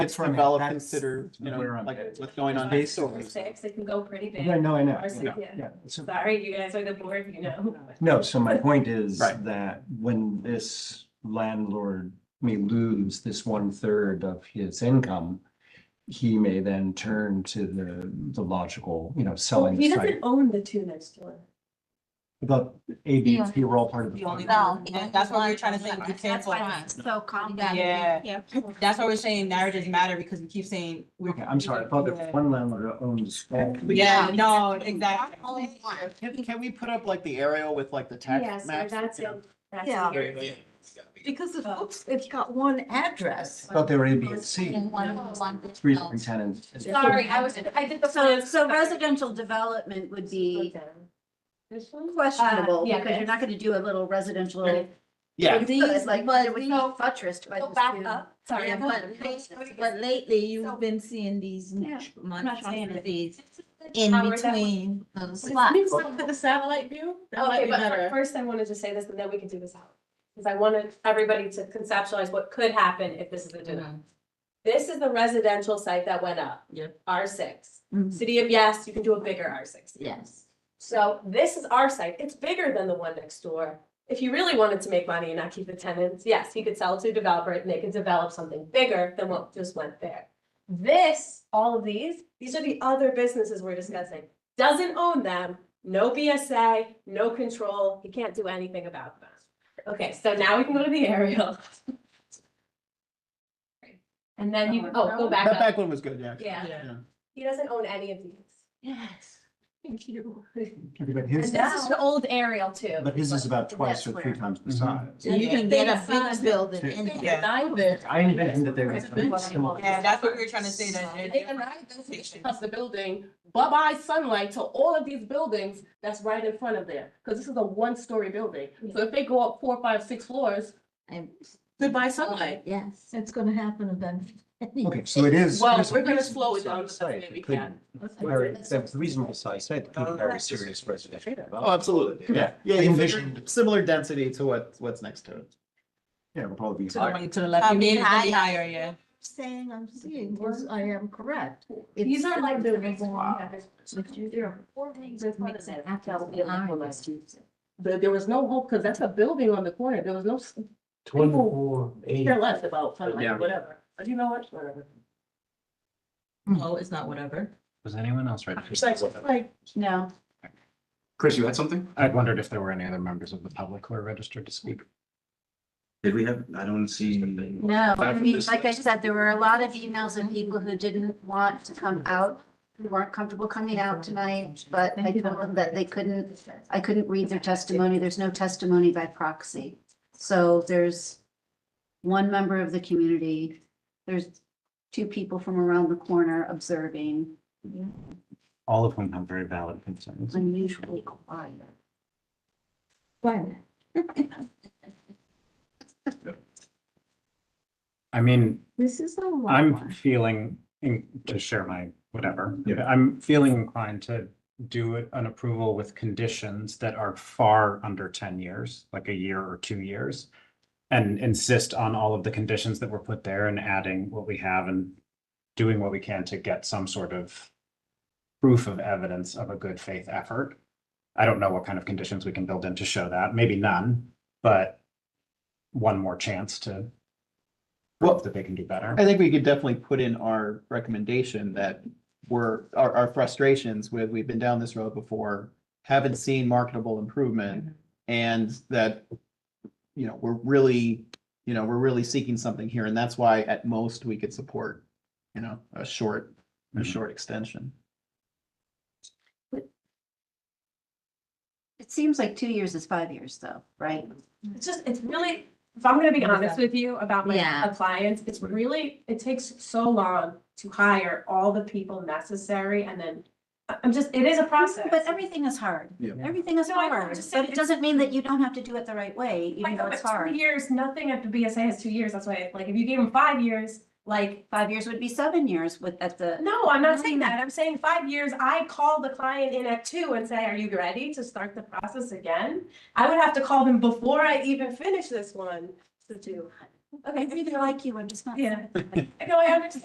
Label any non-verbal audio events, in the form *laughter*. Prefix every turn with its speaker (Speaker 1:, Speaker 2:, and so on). Speaker 1: it's
Speaker 2: for me.
Speaker 1: developed,
Speaker 2: That's
Speaker 1: consider, you
Speaker 3: where
Speaker 1: know,
Speaker 3: I'm
Speaker 1: like
Speaker 3: at.
Speaker 1: what's going on.
Speaker 2: Based on-
Speaker 1: Basically,
Speaker 4: Six, it can go pretty big.
Speaker 2: Yeah, no, I know.
Speaker 4: Or six,
Speaker 2: Yeah,
Speaker 4: yeah.
Speaker 2: yeah. So-
Speaker 4: Sorry, you guys are the board, you know.
Speaker 2: No, so my point is
Speaker 1: Right.
Speaker 2: that when this landlord may lose this one third of his income, he may then turn to the, the logical, you know,
Speaker 4: Well,
Speaker 2: selling
Speaker 4: He
Speaker 2: site.
Speaker 4: doesn't own the two next door.
Speaker 2: The A, B, and C were all part of the.
Speaker 5: The only-
Speaker 2: plan.
Speaker 6: No,
Speaker 5: Yeah,
Speaker 6: Oh, that's what we're
Speaker 5: that's
Speaker 6: trying to
Speaker 5: why
Speaker 6: say, be
Speaker 5: I'm- that's
Speaker 6: careful.
Speaker 5: why I'm So calm down.
Speaker 6: Yeah. That's why we're saying narratives matter because we keep saying. we're-
Speaker 2: Okay, I'm sorry. I thought that one landlord owns all.
Speaker 6: Yeah,
Speaker 5: Yeah.
Speaker 6: no, exactly.
Speaker 5: Only one.
Speaker 1: Can, can we put up like the aerial with like the
Speaker 4: Yes,
Speaker 1: text
Speaker 4: so
Speaker 1: maps?
Speaker 4: that's
Speaker 1: you
Speaker 4: it.
Speaker 1: know?
Speaker 4: That's
Speaker 5: Yeah.
Speaker 4: the area.
Speaker 5: Because the folks, it's got one address.
Speaker 2: I Thought they were A, B, and C,
Speaker 6: One, one.
Speaker 2: three different tenants.
Speaker 4: Sorry, I was, I did the.
Speaker 5: So,
Speaker 4: residential.
Speaker 5: so residential development would be
Speaker 4: This one?
Speaker 5: questionable
Speaker 4: Uh, yeah,
Speaker 5: because you're not gonna do a little residential.
Speaker 1: Yeah,
Speaker 5: And These, like,
Speaker 7: But
Speaker 5: but we
Speaker 7: we-
Speaker 5: know buttressed by.
Speaker 7: Go
Speaker 5: the
Speaker 7: back
Speaker 5: two.
Speaker 7: up.
Speaker 5: Sorry,
Speaker 7: Yeah,
Speaker 5: I'm
Speaker 7: but
Speaker 5: not-
Speaker 7: But lately,
Speaker 5: So-
Speaker 7: you've been seeing these
Speaker 5: Yeah,
Speaker 7: monstrosities in between those
Speaker 6: Let
Speaker 7: slots.
Speaker 6: me just look at the satellite view. That might
Speaker 4: Okay,
Speaker 6: be
Speaker 4: but
Speaker 6: better.
Speaker 4: fir- first I wanted to say this and then we can do this out. Because I wanted everybody to conceptualize what could happen if this is the denial. This is the residential site that went up.
Speaker 6: Mm-hmm. Yep.
Speaker 4: R six.
Speaker 6: Mhm.
Speaker 4: City of Yes, you can do a bigger R six.
Speaker 6: Yes.
Speaker 4: So this is our site. It's bigger than the one next door. If you really wanted to make money and not keep the tenants, yes, he could sell it to a developer and they could develop something bigger than what just went there. This, all of these, these are the other businesses we're discussing. Doesn't own them, no BSA, no control. He can't do anything about them. Okay, so now we can go to the aerial. *laughs* And then you, oh, go back
Speaker 1: that
Speaker 4: up.
Speaker 1: back one was good, yeah.
Speaker 4: Yeah,
Speaker 1: Yeah.
Speaker 4: he doesn't own any of these.
Speaker 6: Yes. Thank you.
Speaker 2: Okay, But
Speaker 4: And
Speaker 2: his,
Speaker 4: this is an old aerial too.
Speaker 2: but his is about twice or
Speaker 5: That's
Speaker 2: three
Speaker 5: where-
Speaker 2: times the
Speaker 1: Mhm.
Speaker 2: size.
Speaker 7: So you can
Speaker 6: They
Speaker 7: get a
Speaker 6: define
Speaker 7: big building
Speaker 2: it.
Speaker 7: in
Speaker 6: They
Speaker 7: there.
Speaker 6: denied it.
Speaker 2: I invented that they were.
Speaker 6: It's been-
Speaker 2: similar.
Speaker 6: Yeah,
Speaker 7: that's what we were trying to say, that-
Speaker 6: They denied those issues of the building, bye-bye sunlight to all of these buildings that's right in front of there. Because this is a one-story building. So if they go up four, five, six floors,
Speaker 7: And-
Speaker 6: goodbye sunlight.
Speaker 7: Yes, it's gonna happen eventually.
Speaker 2: Okay, so it is.
Speaker 6: Well,
Speaker 2: it is a
Speaker 6: we're gonna
Speaker 2: reasonable
Speaker 6: slow it down
Speaker 2: size
Speaker 6: the
Speaker 2: site.
Speaker 6: way we Oh,
Speaker 2: It could-
Speaker 6: can.
Speaker 2: Very, that was the reasonable size, site. It could be very serious residential.
Speaker 1: Oh,
Speaker 2: development.
Speaker 1: absolutely.
Speaker 2: Yeah.
Speaker 1: Yeah,
Speaker 2: I
Speaker 1: you
Speaker 2: envisioned-
Speaker 1: figured similar density to what, what's next to it.
Speaker 2: Yeah, it'll probably be
Speaker 5: To the
Speaker 2: higher.
Speaker 5: right, to the left.
Speaker 6: I
Speaker 5: You mean,
Speaker 6: mean,
Speaker 5: it's gonna
Speaker 6: I-
Speaker 5: be higher, yeah.
Speaker 7: Saying I'm seeing, was- I am correct.
Speaker 4: These are like the
Speaker 7: reason
Speaker 4: reason
Speaker 7: why.
Speaker 4: why.
Speaker 7: There are four things that makes it have to be honest.
Speaker 6: There, there was no hope, because that's a building on the corner. There was no, s-
Speaker 8: Twenty-four, eight.
Speaker 6: care less about sunlight,
Speaker 1: Yeah.
Speaker 6: whatever. But you know what, whatever.
Speaker 7: No, it's not whatever.
Speaker 8: Was anyone else right?
Speaker 6: It's like, like,
Speaker 7: No.
Speaker 9: Chris, you had something?
Speaker 8: I wondered if there were any other members of the public who are registered to speak.
Speaker 9: Did we have, I don't see.
Speaker 5: No, I
Speaker 9: Back to
Speaker 5: mean,
Speaker 9: this
Speaker 5: like I
Speaker 9: list.
Speaker 5: said, there were a lot of emails of people who didn't want to come out, who weren't comfortable coming out tonight, but I told them that they couldn't, I couldn't read their testimony. There's no testimony by proxy. So there's one member of the community, there's two people from around the corner observing,
Speaker 8: All of whom have very valid concerns.
Speaker 5: Mm. unusually quiet.
Speaker 8: I mean,
Speaker 5: This is a long
Speaker 8: I'm
Speaker 5: one.
Speaker 8: feeling, in- to share my whatever,
Speaker 2: Yeah.
Speaker 8: I'm feeling inclined to do it- an approval with conditions that are far under ten years, like a year or two years. And insist on all of the conditions that were put there and adding what we have and doing what we can to get some sort of proof of evidence of a good faith effort. I don't know what kind of conditions we can build in to show that, maybe none, but one more chance to
Speaker 1: Well-
Speaker 8: prove that they can do better.
Speaker 1: I think we could definitely put in our recommendation that we're, our, our frustrations with, we've been down this road before, haven't seen marketable improvement, and that, you know, we're really, you know, we're really seeking something here, and that's why at most we could support, you know, a short, a
Speaker 8: Mhm.
Speaker 1: short extension.
Speaker 5: It seems like two years is five years though, right?
Speaker 4: It's just, it's really, if I'm gonna be honest with you about my
Speaker 7: Yeah.
Speaker 4: clients, it's really, it takes so long to hire all the people necessary and then I- I'm just, it is a process.
Speaker 5: But everything is hard.
Speaker 9: Yeah.
Speaker 5: Everything is
Speaker 4: No, I know, I'm
Speaker 5: hard,
Speaker 4: just saying
Speaker 5: but it
Speaker 4: it's-
Speaker 5: doesn't mean that you don't have to do it the right way,
Speaker 4: I
Speaker 5: even
Speaker 4: know,
Speaker 5: though
Speaker 4: but
Speaker 5: it's
Speaker 4: two
Speaker 5: hard.
Speaker 4: Years, nothing at the BSA has two years. That's why, like, if you gave them five years, like,
Speaker 5: Five years would be seven years with, at the,
Speaker 4: no, I'm not saying that. I'm saying five years, I call the client in at two and say, are you ready to start the process again? I would have to call them before I even finish this one to do.
Speaker 5: I really like you, I'm just not.
Speaker 4: Yeah. I know, I understand.